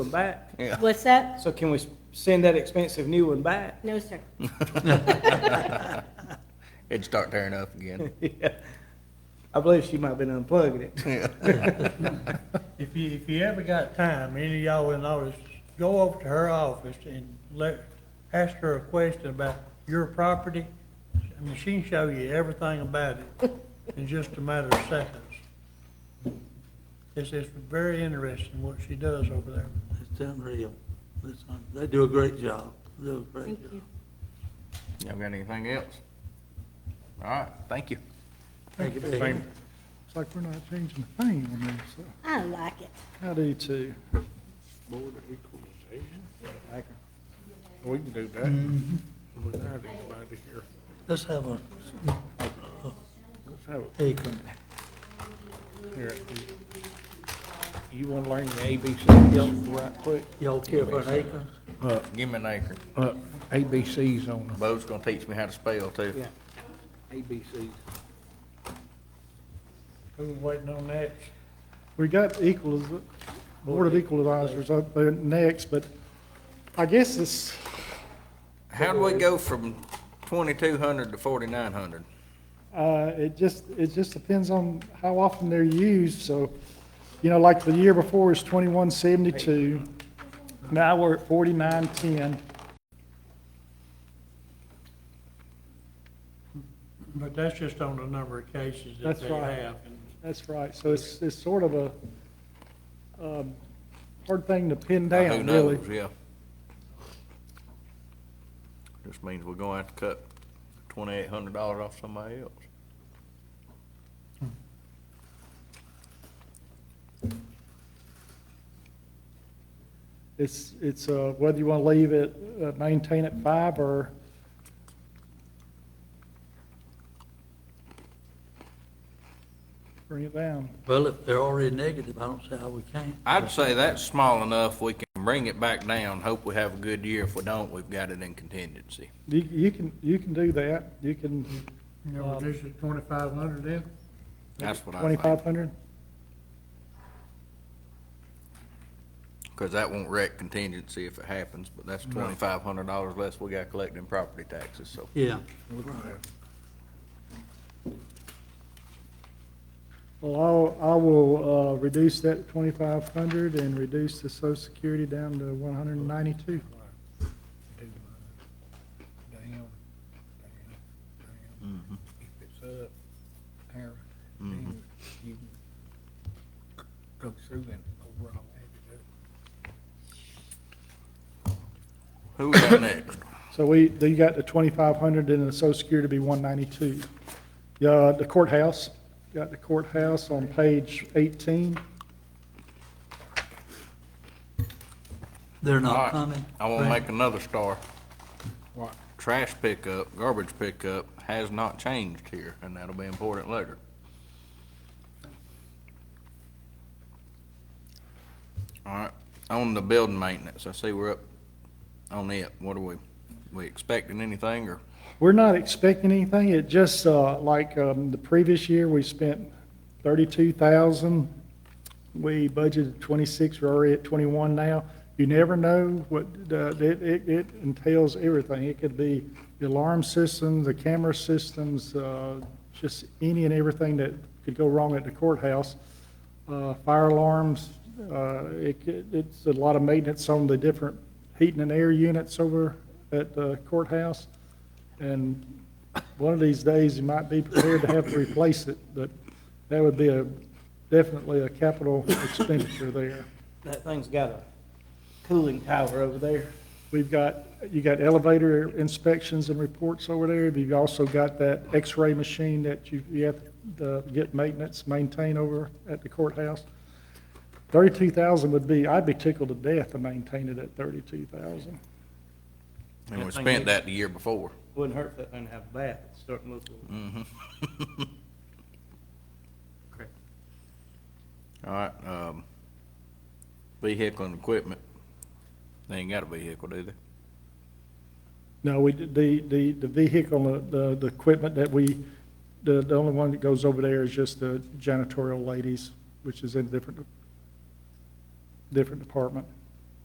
one back? What's that? So can we s- send that expensive new one back? No, sir. It'd start tearing up again. Yeah. I believe she might have been unplugging it. If you, if you ever got time, any of y'all in the office, go over to her office and let, ask her a question about your property. I mean, she can show you everything about it in just a matter of seconds. It's, it's very interesting what she does over there. It's unreal. It's un- They do a great job. They do a Thank great you. job. Y'all got anything else? All right, thank you. Thank you, Pam. It's like we're not changing a thing on this. so I like it. I do too. Board of Equalization. Oh, We can do that. Without anybody here. Mm-hmm. Let's have a, Let's have it. there you come. Here. You want to learn the ABCs right quick? Y'all care for an acre? Give me an acre. Uh, ABCs on them. Bo's gonna teach me how to spell too. ABCs. Who's waiting on that? We got equals, Board of Equalizers up there next, but I guess this, How do we go from twenty-two hundred to forty-nine hundred? uh, it just, it just depends on how often they're used, so, you know, like the year before was twenty-one seventy-two. Now we're at forty-nine ten. But that's just on the number of cases that That's they right. have. and That's right, so it's, it's sort of a, um, hard thing to pin Who down, really. knows, yeah. Just means we're gonna have to cut twenty-eight hundred dollars off somebody else. It's, it's, uh, whether you want to leave it, uh, maintain at five or, bring it down. Well, if they're already negative, I don't see how we can't. I'd say that's small enough, we can bring it back down, hope we have a good year. If we don't, we've got it in contingency. You, you can, you can do that, you can, You know, reduce it twenty-five hundred then? That's what I think, twenty-five hundred? because that won't wreck contingency if it happens, but that's twenty-five hundred dollars less we got collecting property taxes, so. Yeah. Well, I'll, I will, uh, reduce that twenty-five hundred and reduce the social security down to one hundred and ninety-two. Down, down, down. If it's up, there, then you can go through and overall add it up. Who we got next? So we, you got the twenty-five hundred and the social security to be one ninety-two. Yeah, the courthouse, got the courthouse on page eighteen. They're All not right, coming. I want to make another star. What? Trash pickup, garbage pickup has not changed here, and that'll be important later. All right, on the building maintenance, I see we're up on it. What are we, we expecting anything or? We're not expecting anything, it just, uh, like, um, the previous year, we spent thirty-two thousand. We budgeted twenty-six, we're already at twenty-one now. You never know what, uh, it, it, it entails everything. It could be the alarm systems, the camera systems, uh, just any and everything that could go wrong at the courthouse. Uh, fire alarms, uh, it, it- it's a lot of maintenance on the different heating and air units over at the courthouse. And one of these days, you might be prepared to have to replace it, but that would be a, definitely a capital expenditure there. That thing's got a cooling tower over there. We've got, you got elevator inspections and reports over there, but you've also got that x-ray machine that you, you have to get maintenance, maintain over at the courthouse. Thirty-two thousand would be, I'd be tickled to death to maintain it at thirty-two thousand. And we Nothing spent yet. that the year before. Wouldn't hurt for that thing to have a bath, It's starting to look a little. All right, um, vehicle and equipment. They ain't got a vehicle, do they? No, we, the, the, the vehicle, uh, the, the equipment that we, the, the only one that goes over there is just the janitorial ladies, which is in different, different department.